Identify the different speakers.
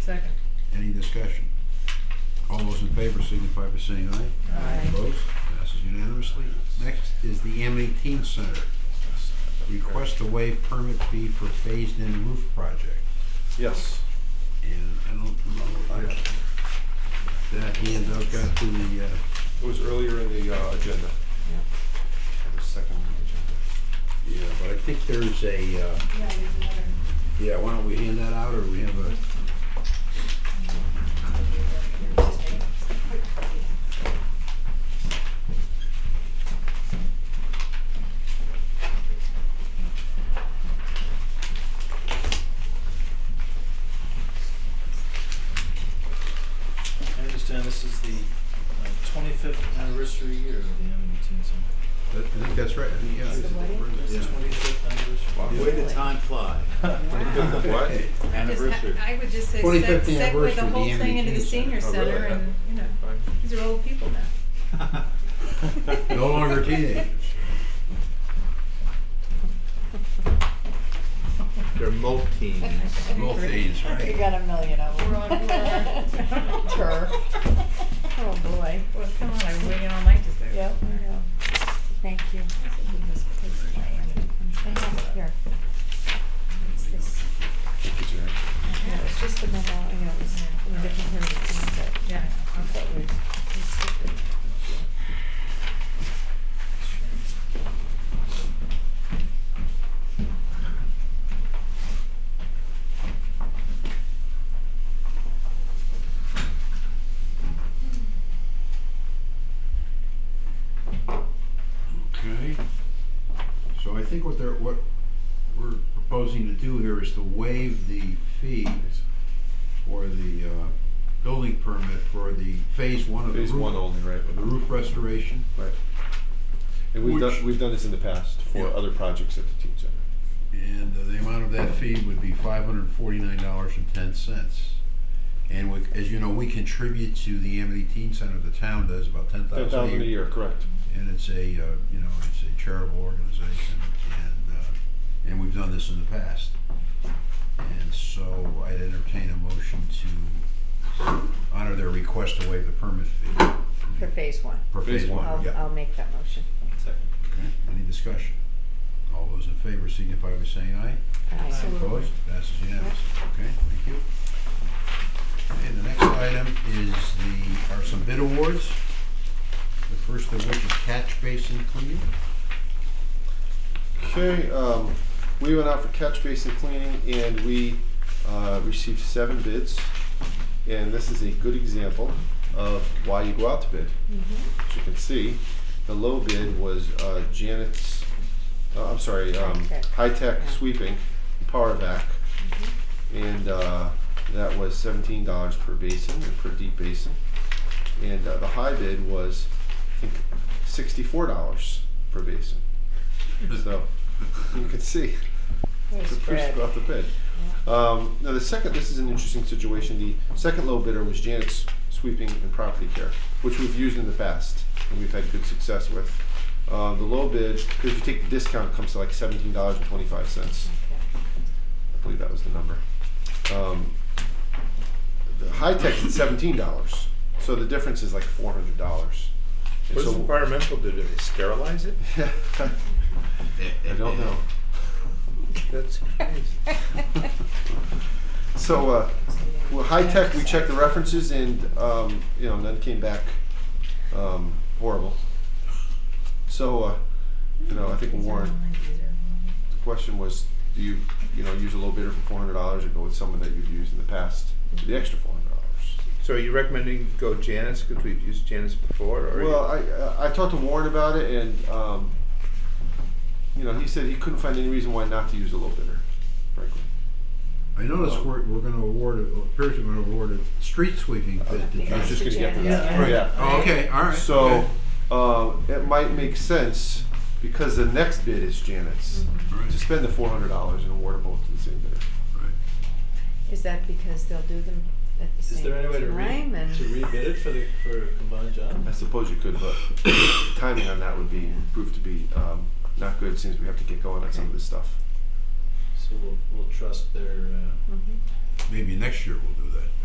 Speaker 1: Second.
Speaker 2: Any discussion? All those in favor signify by saying aye.
Speaker 1: Aye.
Speaker 2: Opposed? Passes unanimously. Next is the Amity Teen Center. Request to waive permit fee for phased-in roof project.
Speaker 3: Yes.
Speaker 2: And I don't know, I, that handout got to the, uh,
Speaker 3: It was earlier in the uh, agenda. It was second on the agenda.
Speaker 2: yeah, but I think there's a, uh,
Speaker 4: Yeah, there's another.
Speaker 2: yeah, why don't we hand that out, or we have a,
Speaker 5: I understand this is the uh, twenty-fifth anniversary year of the Amity Teen Center.
Speaker 2: I think that's right, I think, yeah.
Speaker 4: Is the wedding?
Speaker 2: Yeah.
Speaker 5: Twenty-fifth anniversary.
Speaker 3: Wow.
Speaker 6: Way to time fly.
Speaker 4: Wow.
Speaker 3: What?
Speaker 2: Hey,
Speaker 6: Anniversary.
Speaker 4: I would just say,
Speaker 2: 25th
Speaker 4: seg- segue the
Speaker 2: anniversary,
Speaker 4: whole
Speaker 2: the
Speaker 4: thing into the
Speaker 2: MDT
Speaker 4: senior
Speaker 3: center. Oh,
Speaker 4: center
Speaker 3: really?
Speaker 4: and, you know,
Speaker 3: Fine.
Speaker 4: these are old people now.
Speaker 2: No longer teenagers.
Speaker 6: They're multi teens.
Speaker 2: Both these,
Speaker 7: You
Speaker 2: right?
Speaker 7: got a million of them.
Speaker 4: We're on board.
Speaker 7: Turf. Oh, boy.
Speaker 4: Well, come on, I'm waiting all night to say
Speaker 7: Yep,
Speaker 4: that.
Speaker 7: I know. Thank you. I have it here. It's this-
Speaker 3: Get your act-
Speaker 7: Yeah, it was just the memo, I know, it was in a different here, but
Speaker 4: Yeah.
Speaker 7: I thought we we skipped it.
Speaker 2: Okay. So I think what they're, what we're proposing to do here is to waive the fee for the, uh, building permit for the phase one of the roof.
Speaker 3: Phase one only, right?
Speaker 2: of The roof restoration.
Speaker 3: Right. And
Speaker 2: Which-
Speaker 3: we've done, we've done this in the past for
Speaker 2: Yeah.
Speaker 3: other projects at the teen center.
Speaker 2: And uh, the amount of that fee would be five hundred and forty-nine dollars and ten cents. And we, as you know, we contribute to the Amity Teen Center, the town does about ten
Speaker 3: Ten thousand a year, correct.
Speaker 2: and it's a, uh, you know, it's a charitable organization, and, uh, and we've done this in the past. And so I'd entertain a motion to honor their request to waive the permit fee.
Speaker 7: For phase one.
Speaker 2: For
Speaker 3: Phase
Speaker 2: phase
Speaker 3: one.
Speaker 2: one,
Speaker 7: I'll,
Speaker 2: yeah.
Speaker 7: I'll make that motion.
Speaker 5: Second.
Speaker 2: Okay. Any discussion? All those in favor signify by saying aye.
Speaker 7: Aye.
Speaker 2: Opposed? Passes unanimously. Okay, thank you. Okay, the next item is the, are some bid awards. The first of which is catch basin cleaning.
Speaker 3: Okay, um, we went out for catch basin cleaning and we, uh, received seven bids. And this is a good example of why you go out to bid. As you can see, the low bid was, uh, Janet's, uh, I'm sorry, um,
Speaker 7: High-tech.
Speaker 3: high-tech
Speaker 7: Yeah.
Speaker 3: sweeping, power vac. And, uh, that was seventeen dollars per basin, or per deep basin. And, uh, the high bid was, I think, sixty-four dollars per basin. So, you can see,
Speaker 7: We're
Speaker 3: it's a pretty
Speaker 7: spread.
Speaker 3: about the bid. Um, now the second, this is an interesting situation, the second low bidder was Janet's Sweeping and Property Care, which we've used in the past, and we've had good success with. Uh, the low bid, because if you take the discount, it comes to like seventeen dollars and twenty-five cents,
Speaker 7: Okay.
Speaker 3: I believe that was the number. Um, the high tech is seventeen dollars, so the difference is like four hundred dollars.
Speaker 6: What's
Speaker 3: so-
Speaker 6: environmental, do they sterilize it?
Speaker 3: I don't know.
Speaker 6: That's crazy.
Speaker 3: So, uh, well, high tech, we checked the references and, um, you know, none came back, um, horrible. So, uh, you know, I think Warren, the question was, do you, you know, use a low bidder for four hundred dollars or go with someone that you've used in the past for the extra four hundred dollars?
Speaker 6: So are you recommending go Janus, because we've used Janus before, or?
Speaker 3: Well, I, I I talked to Warren about it, and um, you know, he said he couldn't find any reason why not to use a low bidder, frankly.
Speaker 2: I notice we're, we're gonna award, it appears we're gonna award a street sweeping bid to
Speaker 3: I was just
Speaker 2: Johnson.
Speaker 3: gonna get to that.
Speaker 2: Right.
Speaker 3: Yeah.
Speaker 2: Oh, Okay, all right.
Speaker 3: So
Speaker 2: okay.
Speaker 3: um, it might make sense because the next bid is Janet's
Speaker 2: Right,
Speaker 3: to spend the four hundred dollars and award them both to the same bidder.
Speaker 2: right.
Speaker 7: Is that because they'll do them at the
Speaker 5: Is
Speaker 7: same
Speaker 5: there any way to re,
Speaker 7: time and?
Speaker 5: to rebid it for the, for a combined job?
Speaker 3: I suppose you could, but the timing on that would be prove to be um, not good since we have to get going on some of this stuff.
Speaker 5: So we'll, we'll trust their, uh,
Speaker 7: Mhm.
Speaker 2: Maybe next year we'll do that.
Speaker 3: Mm-hmm.